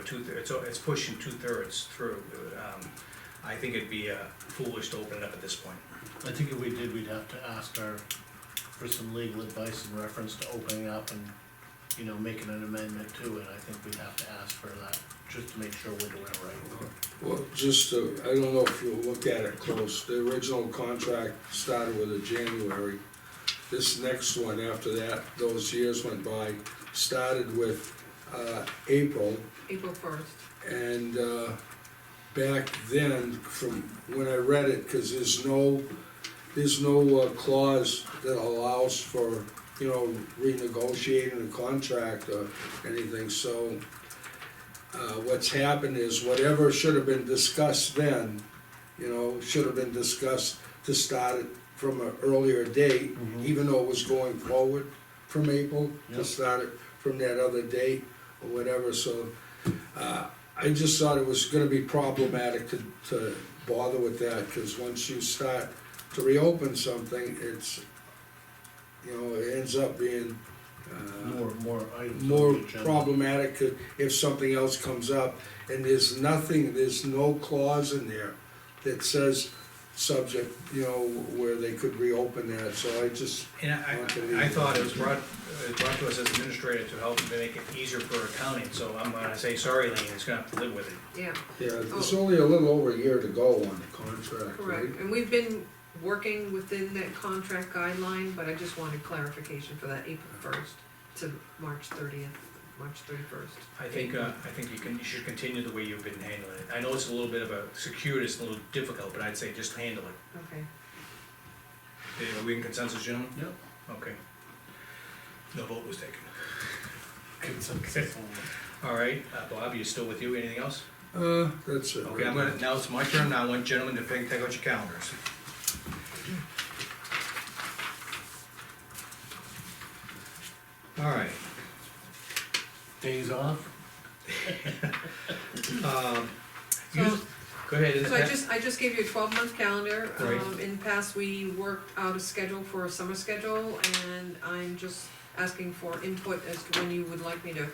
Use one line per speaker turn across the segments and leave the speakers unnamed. two, it's, it's pushing two-thirds through. Um, I think it'd be uh, foolish to open it up at this point.
I think if we did, we'd have to ask our, for some legal advice in reference to opening up and, you know, making an amendment to it, I think we'd have to ask for that, just to make sure we're doing it right.
Well, just, uh, I don't know if you looked at it close, the original contract started with a January. This next one after that, those years went by, started with, uh, April.
April first.
And, uh, back then, from when I read it, cause there's no, there's no uh, clause that allows for, you know, renegotiating a contract or anything, so. Uh, what's happened is whatever should have been discussed then, you know, should have been discussed to start it from an earlier date,
Mhm.
even though it was going forward from April,
Yep.
to start it from that other date or whatever, so. Uh, I just thought it was gonna be problematic to, to bother with that, cause once you start to reopen something, it's, you know, it ends up being, uh,
More, more items. on the
more
agenda.
problematic if- if something else comes up. And there's nothing, there's no clause in there that says subject, you know, where they could reopen that, so I just,
And I- I, I thought it was brought, uh, brought to us as administrator to help make it easier for accounting, so I'm gonna say, sorry, Lean, it's gonna have to live with it.
Yeah,
yeah, there's only a little over a year to go on the contract, right?
correct, and we've been working within that contract guideline, but I just wanted clarification for that April first to March thirtieth, March thirty-first.
I think, uh, I think you can, you should continue the way you've been handling it. I know it's a little bit of a circuitous, and a little difficult, but I'd say just handle it.
Okay,
Are we in consensus, gentlemen?
Yep.
Okay. No vote was taken.
Consensus.
All right, uh, Bob, you still with you, anything else?
Uh, that's it.
Okay, I'm gonna, now it's my turn, now I want gentlemen to take, take out your calendars. All right,
Days off,
um,
So-
you, go ahead,
so I
isn't
just, I just gave you a twelve-month calendar,
Right.
um, in the past, we worked out a schedule for a summer schedule, and I'm just asking for input as to when you would like me to,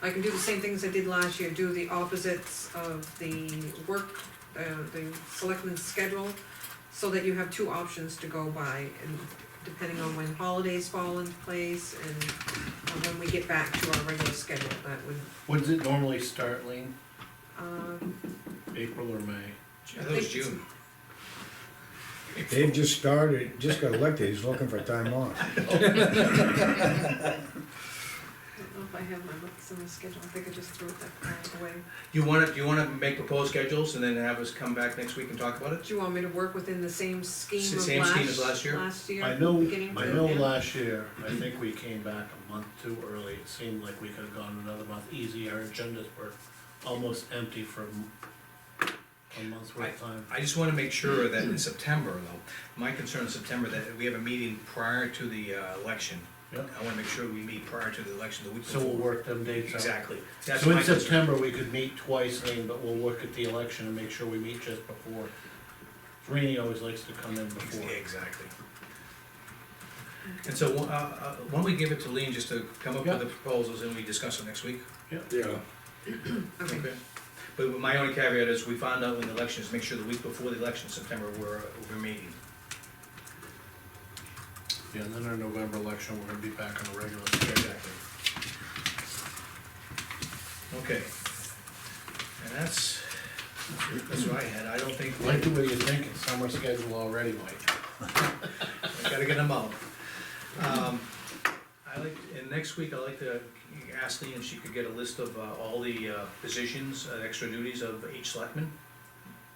I can do the same things I did last year, do the opposites of the work, uh, the selectmen's schedule, so that you have two options to go by, and depending on when holidays fall into place, and uh, when we get back to our regular schedule, that would,
when does it normally start, Lean,
um,
April or May?
I thought it was June.
Dave just started, just got elected, he's looking for time off.
I don't know if I have my summer schedule, I think I just threw it that away.
You wanna, do you wanna make proposed schedules and then have us come back next week and talk about it?
Do you want me to work within the same scheme
S-
of
same scheme as
last,
last year?
last year?
I know,
beginning
I
to
know
end?
last year, I think we came back a month too early, it seemed like we could have gone another month easy, our agendas were almost empty for a month's worth of time.
I just wanna make sure that in September though, my concern in September, that we have a meeting prior to the, uh, election.
Yeah.
I wanna make sure we meet prior to the election, the week
So we'll
before.
work them dates out.
Exactly, that's
So
my
in
concern.
September, we could meet twice, Lean, but we'll look at the election and make sure we meet just before. Rainey always likes to come in before.
Exactly. And so, uh, uh, why don't we give it to Lean just to come up with the proposals and we discuss it next week?
Yeah,
Okay,
But my only caveat is we find out when the election is, make sure the week before the election, September, we're, we're meeting.
Yeah, and then our November election, we're gonna be back on a regular schedule.
Okay. And that's, that's what I had, I don't think,
Like the way you think, it's summer schedule already, Mike.
I gotta get them out. Um, I like, and next week, I'd like to ask Lean if she could get a list of uh, all the uh, positions, uh, extra duties of each selectman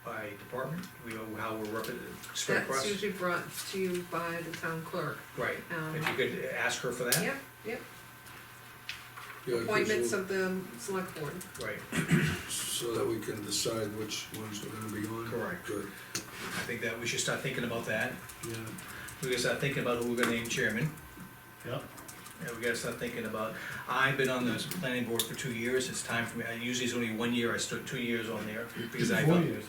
by department, we know how we're rep- spread across.
that's usually brought to you by the town clerk.
Right,
Um,
if you could ask her for that,
Yep, yep,
yeah, 'cause
appointments
we'll-
of the select board.
right,
so that we can decide which ones we're gonna be on.
Correct.
Good,
I think that we should start thinking about that,
yeah.
we gotta start thinking about who we're gonna name chairman,
Yep.
and we gotta start thinking about, I've been on this planning board for two years, it's time for me, I usually it's only one year, I stood two years on there, because I
Four
thought,
years,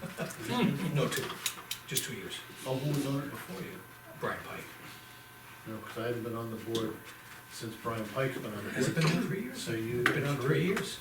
aren't you?
no, two, just two years,
Oh, who was on it before you?
Brian Pike.
No, cause I haven't been on the board since Brian Pike's been on the board.
Has it been on three years?
So you.
Been on three years?